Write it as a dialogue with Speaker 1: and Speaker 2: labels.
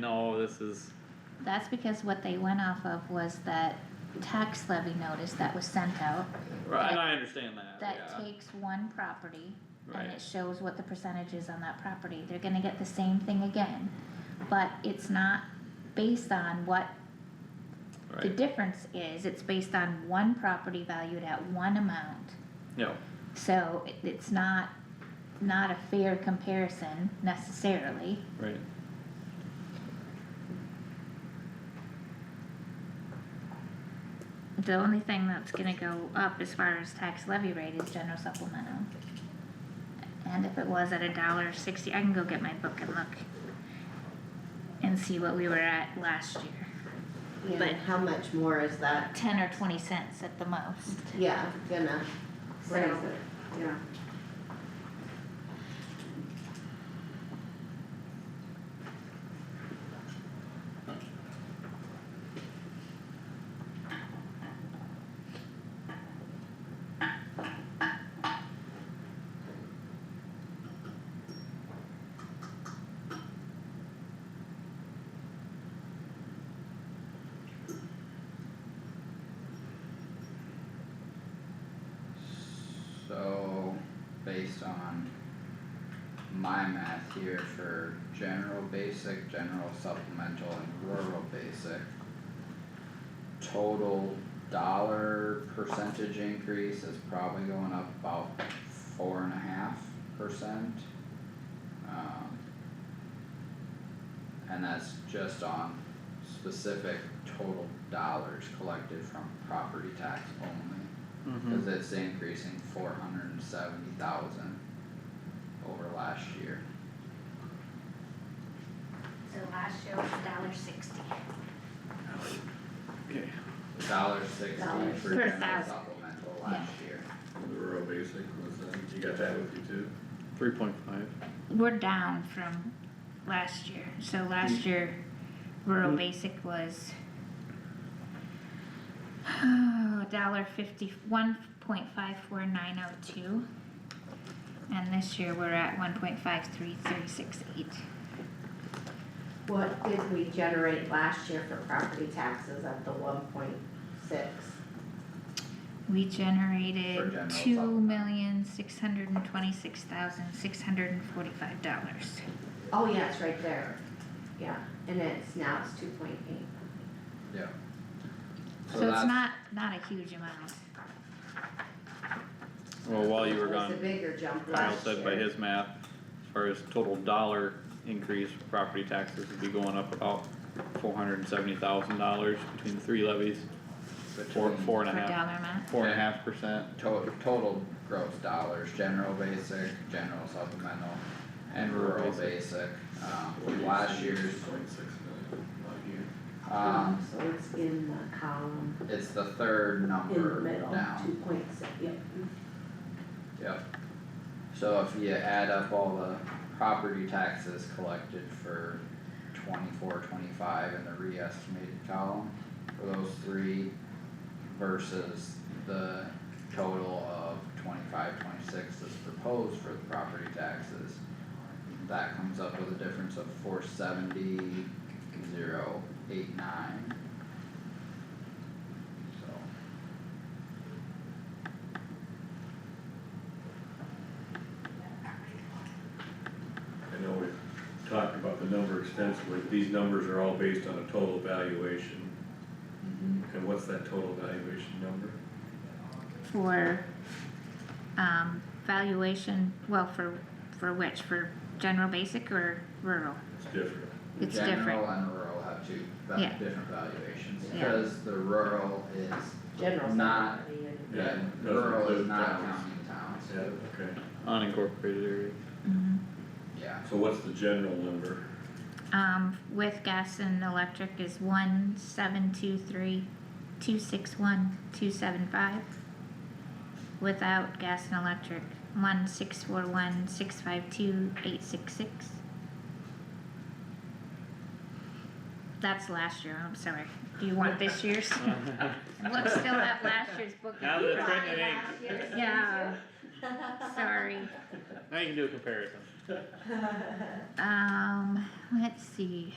Speaker 1: no, this is,
Speaker 2: That's because what they went off of was that tax levy notice that was sent out,
Speaker 1: right, and I understand that,
Speaker 2: that
Speaker 1: yeah,
Speaker 2: takes one property. And
Speaker 1: Right.
Speaker 2: it shows what the percentage is on that property, they're gonna get the same thing again, but it's not based on what the
Speaker 1: right,
Speaker 2: difference is, it's based on one property valued at one amount.
Speaker 1: yeah,
Speaker 2: So it- it's not, not a fair comparison necessarily.
Speaker 1: right.
Speaker 2: The only thing that's gonna go up as far as tax levy rate is general supplemental. And if it was at a dollar sixty, I can go get my book and look and see what we were at last year.
Speaker 3: Yeah,
Speaker 2: But-
Speaker 3: and how much more is that,
Speaker 2: Ten or twenty cents at the most.
Speaker 3: yeah, gonna raise
Speaker 2: So,
Speaker 3: it, yeah.
Speaker 4: So, based on my math here for general basic, general supplemental and rural basic. Total dollar percentage increase is probably going up about four and a half percent. Um. And that's just on specific total dollars collected from property tax only.
Speaker 1: Mhm.
Speaker 4: Cause it's increasing four hundred and seventy thousand over last year.
Speaker 2: last year was a dollar sixty.
Speaker 1: Okay.
Speaker 4: A Dollar sixty
Speaker 3: Dollars.
Speaker 4: for
Speaker 2: Per
Speaker 4: general
Speaker 2: thousand.
Speaker 4: supplemental last year.
Speaker 5: Rural basic was that, you got that with you too?
Speaker 1: Three point five.
Speaker 2: We're down from last year, so last year rural
Speaker 1: Mm.
Speaker 2: basic was dollar fifty, one point five four nine oh two. And this year we're at one point five three three six eight.
Speaker 3: What did we generate last year for property taxes at the one point six?
Speaker 2: We
Speaker 4: For
Speaker 2: generated
Speaker 4: general
Speaker 2: two
Speaker 4: fund.
Speaker 2: million six hundred and twenty-six thousand six hundred and forty-five dollars.
Speaker 3: Oh, yeah, it's right there, yeah, and it's, now it's two point eight.
Speaker 4: Yeah.
Speaker 2: So it's not, not a huge amount.
Speaker 1: Well, while you were
Speaker 3: It was a
Speaker 1: gone,
Speaker 3: bigger jump
Speaker 1: Kyle
Speaker 3: last year.
Speaker 1: said by his math, as far as total dollar increase, for property taxes would be going up about four hundred and seventy thousand dollars between the three levies, four,
Speaker 4: between
Speaker 1: four and
Speaker 2: For
Speaker 1: a
Speaker 2: dollar
Speaker 1: half,
Speaker 2: amount,
Speaker 1: four and a half percent.
Speaker 4: To- total gross dollars, general basic, general supplemental and rural basic. Um, last year's,
Speaker 5: Point six million, not here.
Speaker 4: um,
Speaker 3: So it's in the column,
Speaker 4: it's the third
Speaker 3: in the
Speaker 4: number
Speaker 3: middle,
Speaker 4: down.
Speaker 3: two point six, yep.
Speaker 4: Yep. So if you add up all the property taxes collected for twenty-four, twenty-five in the re-estimated column for those three versus the total of twenty-five, twenty-six that's proposed for the property taxes, that comes up with a difference of four seventy, zero, eight, nine. So.
Speaker 5: I know we've talked about the number extensively, but these numbers are all based on a total valuation.
Speaker 4: Mm-hmm.
Speaker 5: And what's that total valuation number?
Speaker 2: for, um, valuation, well, for, for which, for general basic or rural?
Speaker 5: It's different.
Speaker 2: It's different,
Speaker 4: General and rural have two va-
Speaker 2: Yeah.
Speaker 4: different valuations,
Speaker 3: Yeah.
Speaker 4: because the rural is,
Speaker 3: General.
Speaker 4: Not-
Speaker 3: somebody and-
Speaker 5: Yeah,
Speaker 4: yeah,
Speaker 5: it doesn't
Speaker 4: rural is
Speaker 5: include
Speaker 4: not
Speaker 5: towns.
Speaker 4: counting towns,
Speaker 5: Yeah, okay.
Speaker 1: Unincorporated areas.
Speaker 2: Mhm.
Speaker 4: yeah,
Speaker 5: So what's the general number?
Speaker 2: um, with gas and electric is one, seven, two, three, two, six, one, two, seven, five. Without gas and electric, one, six, four, one, six, five, two, eight, six, six. That's last year, I'm sorry, do you want this year's? Look still at last year's book.
Speaker 1: Now that it's written in ink,
Speaker 3: Last year's,
Speaker 2: Yeah. Sorry,
Speaker 1: now you can do a comparison.
Speaker 2: um, let's see,